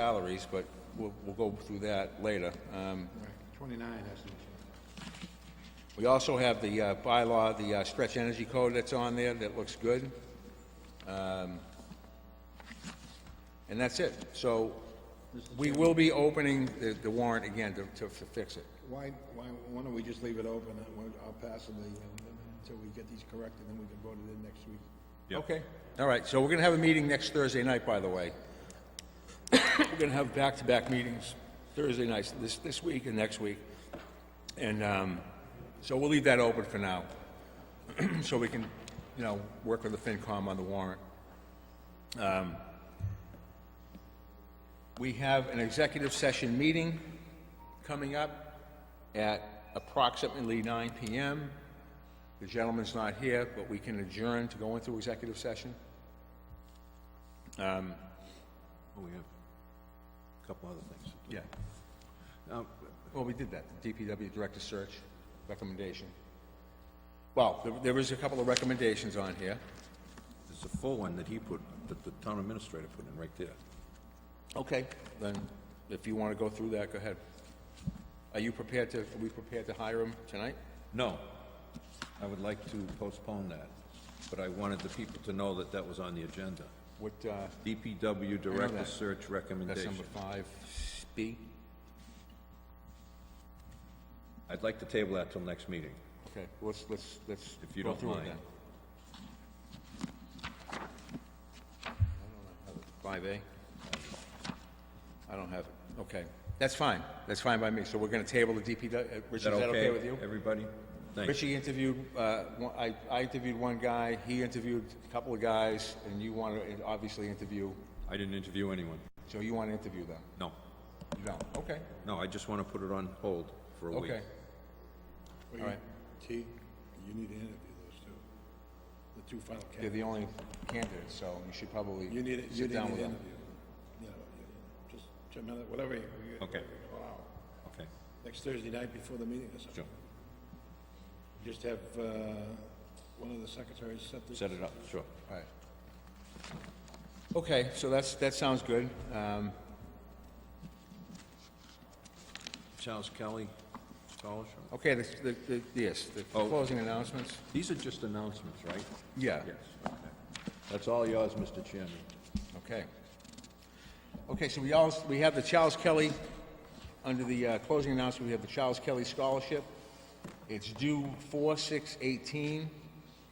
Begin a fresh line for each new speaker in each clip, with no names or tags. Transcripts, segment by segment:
salaries, but we'll, we'll go through that later. Um,
Right, 29 has to change.
We also have the uh, bylaw, the uh, stretch energy code that's on there that looks good. Um, And that's it. So we will be opening the the warrant again to, to to fix it.
Why, why, why don't we just leave it open, and we'll- I'll pass it the- until we get these corrected, then we can vote it in next week.
Okay, all right, so we're gonna have a meeting next Thursday night, by the way. We're gonna have back-to-back meetings Thursday nights, this, this week and next week. And, um, so we'll leave that open for now, so we can, you know, work with the FinCom on the warrant. Um, We have an executive session meeting coming up at approximately nine PM. The gentleman's not here, but we can adjourn to go into executive session.
Well, Oh, We have a couple other things.
Yeah.
Uh,
Well, we did that, the DPW Director Search recommendation. Well, there- there was a couple of recommendations on here.
There's a full one that he put, that the town administrator put in right there.
Okay. Then, if you want to go through that, go ahead. Are you prepared to, are we prepared to hire him tonight?
No, I would like to postpone that, but I wanted the people to know that that was on the agenda.
What, uh,
DPW Director
that.
Search
that's number
Recommendation.
five, B?
I'd like to table that till next meeting.
Okay, let's, let's, let's
If you
go
don't
through it
mind.
then. Five A? I don't have it, okay. That's fine, that's fine by me, so we're gonna table the DPW, uh,
Is
Richie,
that
is that okay
okay,
with you?
everybody? Thanks.
Richie interviewed, uh, one- I, I interviewed one guy, he interviewed a couple of guys, and you wanna uh, obviously interview,
I didn't interview anyone.
so you wanna interview them?
No,
You don't, okay,
no, I just want to put it on hold for a week.
okay. All
Well, you-
right.
T, you need to interview those two, the two final
They're
candidates.
the only candidates, so you should probably
You need, you
sit
need
down
an
with them.
interview. You know, you- just, a minute, whatever, you- you-
Okay.
Wow.
Okay,
Next Thursday night before the meeting or something.
sure,
Just have, uh, one of the secretaries set this.
set it up, sure.
Right. Okay, so that's, that sounds good. Um,
Charles Kelly Scholarship?
Uh, Okay, the, the- the, yes, the
Oh.
closing announcements?
These are just announcements, right?
Yeah.
okay. That's all yours, Mr. Chairman.
Okay. Okay, so we all, we have the Charles Kelly, under the uh, closing announcement, we have the Charles Kelly Scholarship. It's due four, six, eighteen.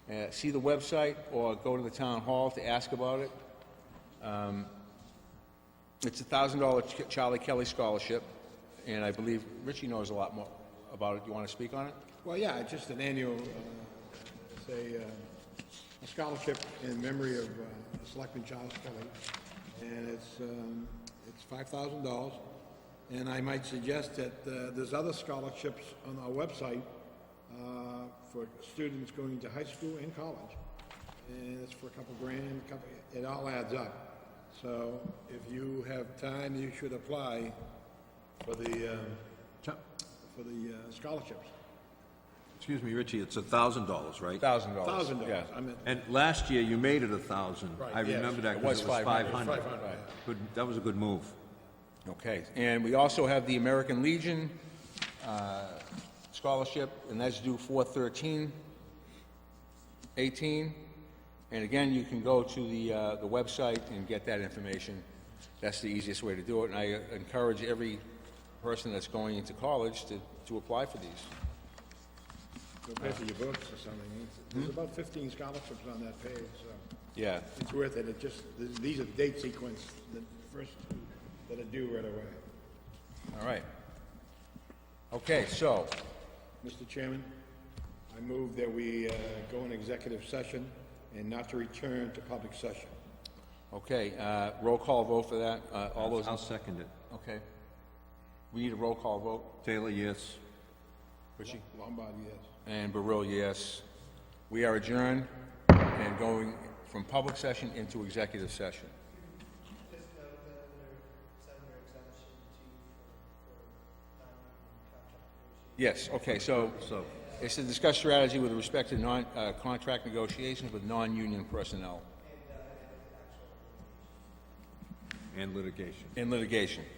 Uh, see the website or go to the town hall to ask about it. Um, It's a thousand dollar Charlie Kelly Scholarship, and I believe Richie knows a lot more about it. You wanna speak on it?
Well, yeah, it's just an annual, uh, it's a, uh, a scholarship in memory of uh, Selectman Charles Kelly, and it's, um, it's five thousand dollars. And I might suggest that uh, there's other scholarships on our website uh, for students going to high school and college. And it's for a couple grand, couple, it all adds up. So if you have time, you should apply for the, uh, for the uh, scholarships.
Excuse me, Richie, it's a thousand dollars, right?
Thousand dollars.
Thousand dollars, I meant,
And last year, you made it a thousand.
Right,
I
yes.
remember that
It
because
was
it
500.
was five hundred.
Five hundred,
Good, that was a good move.
Okay, and we also have the American Legion uh, Scholarship, and that's due 4/13/18. And again, you can go to the, uh, the website and get that information. That's the easiest way to do it, and I encourage every person that's going into college to, to apply for these.
go pay for your books or something. It's- There's about fifteen scholarships on that page, so
Yeah,
it's worth it. It just, th- these are the date sequence, the first two that are due right away.
all right. Okay, so,
Mr. Chairman, I move that we uh, go in executive session and not to return to public session.
okay, uh, roll call vote for that, Uh, all those,
I'll second it.
okay. We need a roll call vote,
Taylor, yes.
Richie?
Lombardi, yes.
And Baril, yes. We are adjourned and going from public session into executive session. Yes, okay, so
So,
it's to discuss strategy with respect to non, uh, contract negotiations with non-union personnel.
and litigation.
in litigation.